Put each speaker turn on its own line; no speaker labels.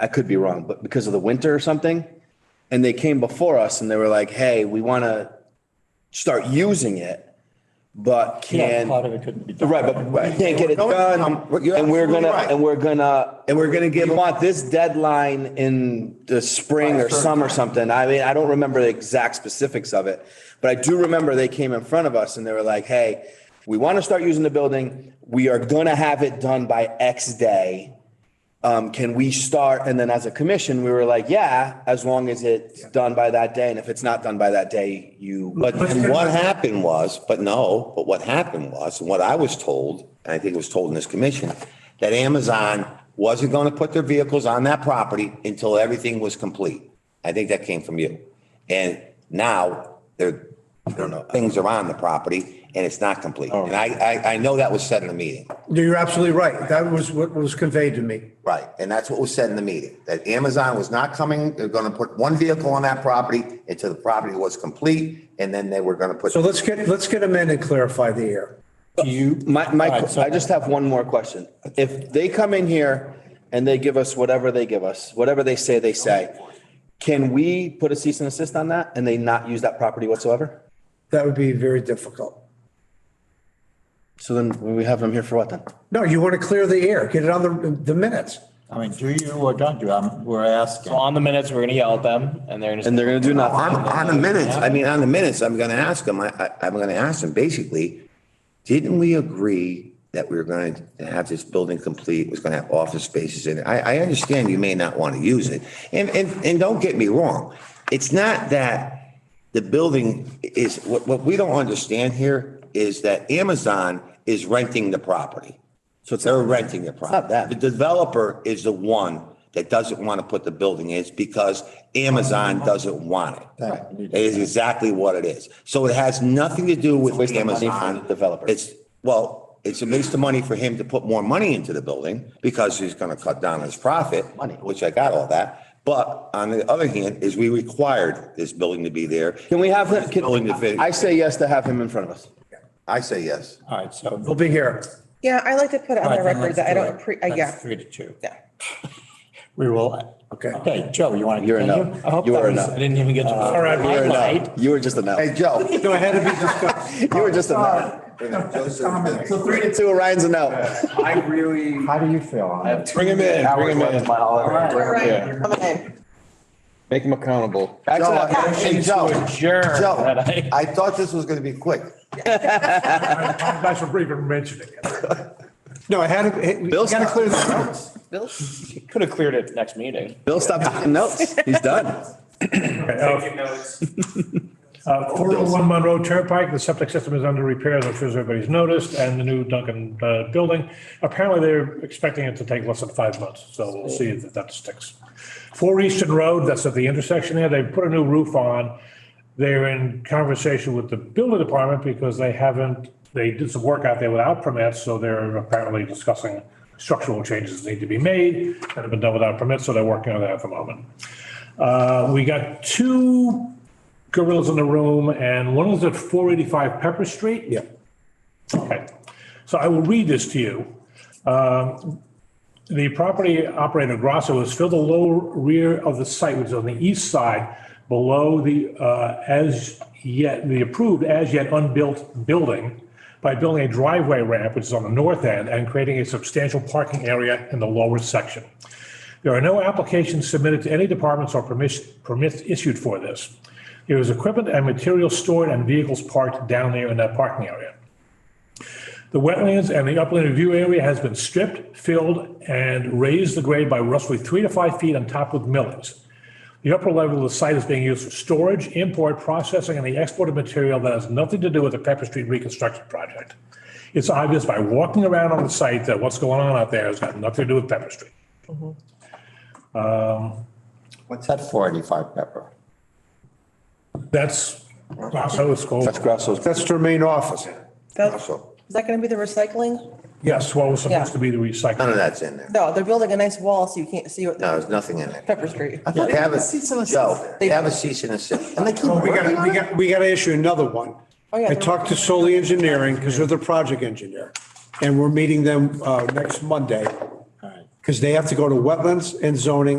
I could be wrong, but because of the winter or something. And they came before us and they were like, hey, we want to start using it, but
Yeah,
can.
part of it couldn't be done.
Right, but we can't get it
No,
done,
um, you're
and we're
absolutely
gonna,
right.
and we're gonna.
And we're gonna give-
We want this deadline in the spring or summer or something. I mean, I don't remember the exact specifics of it. But I do remember they came in front of us and they were like, hey, we want to start using the building. We are gonna have it done by X day. Um, can we start? And then as a commission, we were like, yeah, as long as it's done by that day. And if it's not done by that day, you.
But and what happened was, but no, but what happened was, and what I was told, and I think it was told in this commission, that Amazon wasn't going to put their vehicles on that property until everything was complete. I think that came from you. And now they're, things are on the property and it's not complete. And I, I, I know that was said in a meeting.
You're absolutely right. That was what was conveyed to me.
Right, and that's what was said in the meeting, that Amazon was not coming, they're gonna put one vehicle on that property until the property was complete, and then they were gonna put.
So let's get, let's get them in and clarify the air.
Do you?
My, my,
All right, so-
I just have one more question. If they come in here and they give us whatever they give us, whatever they say they say, can we put a cease and assist on that and they not use that property whatsoever?
That would be very difficult.
So then we have them here for what then?
No, you want to clear the air, get it on the, the minutes.
I mean, do you or don't you? I'm, we're asking.
On the minutes, we're gonna yell at them and they're
And
gonna,
they're gonna do nothing.
On, on the minutes, I mean, on the minutes, I'm gonna ask them, I, I, I'm gonna ask them, basically, didn't we agree that we were going to have this building complete, It was gonna have office spaces in it? I, I understand you may not wanna use it, and, and, and don't get me wrong, it's not that the building is, what, what we don't understand here is that Amazon is renting the property. So it's. They're renting the property.
not that.
The developer is the one that doesn't want to put the building in, it's because Amazon doesn't want it. It is exactly what it is. So it has nothing to do with
waste of money for
Amazon.
the developer.
It's, well, it's a waste of money for him to put more money into the building because he's going to cut down his profit,
Money.
which I got all that. But on the other hand, is we required this building to be there.
Can we have, them-
This building to fit.
can, I say yes to have him in front of us.
I say yes.
All right, so.
We'll be here.
Yeah, I like to put it
All
on
right,
the
then
record
let's
that I
do
don't,
it.
appre-
That's
uh, yeah,
Three to two.
yeah.
We will.
Okay.
Okay, Joe, you want to
You're a no.
continue? I hope
You
that
are a
was-
no.
I didn't even get to. All
right,
I lied.
You were just a no.
Hey, Joe.
No, it had to be discussed.
You were just a no.
Joe.
So three to two, Orion's a no.
I really.
How do you feel on it?
Bring him in, bring him in.
All
Yeah.
right, come on in.
Make him accountable.
I- Hey, Joe,
adjourn.
Joe,
that I-
I thought this was going to be quick.
That's for even mentioning it. No, I had to, we got to clear the notes.
Could have cleared it next meeting.
Bill stopped taking notes. He's done.
Uh, 401 Monroe Turnpike, the septic system is under repair, as I'm sure everybody's noticed, and the new Duncan uh, building. Apparently, they're expecting it to take less than five months, so we'll see if that sticks. 4 Eastern Road, that's at the intersection there, they put a new roof on. They're in conversation with the building department because they haven't, they did some work out there without permits, so they're apparently discussing structural changes that need to be made that have been done without permits, so they're working on that at the moment. Uh, We got two gorillas in the room, and one is at 485 Pepper Street. Yeah. Okay, so I will read this to you. Um, The property operator Grasso has filled the lower rear of the site, which is on the east side, below the uh, as yet, the approved as yet unbuilt building by building a driveway ramp, which is on the north end, and creating a substantial parking area in the lower section. There are no applications submitted to any departments or permis- permits issued for this. There is equipment and material stored and vehicles parked down there in that parking area. The wetlands and the upland review area has been stripped, filled, and raised the grade by roughly three to five feet on top with millings. The upper level of the site is being used for storage, import, processing, and the export of material that has nothing to do with the Pepper Street reconstruction project. It's obvious by walking around on the site that what's going on out there has got nothing to do with Pepper Street.
What's that four eighty-five pepper?
That's, so it's called.
That's Grasso's.
That's to remain office.
That- Is that going to be the recycling?
Yes, what was
Yeah.
supposed to be the
None
recycling.
of that's in there.
No, they're building a nice wall so you can't see what
No, there's nothing in there.
Pepper Street.
They have a, Joe, they have a cease and desist. And they keep
We got,
working
to we
on it.
got, we got to issue another one.
Oh, yeah.
I talked to Soli Engineering because they're the project engineer. And we're meeting them uh, next Monday
All right.
because they have to go to wetlands and zoning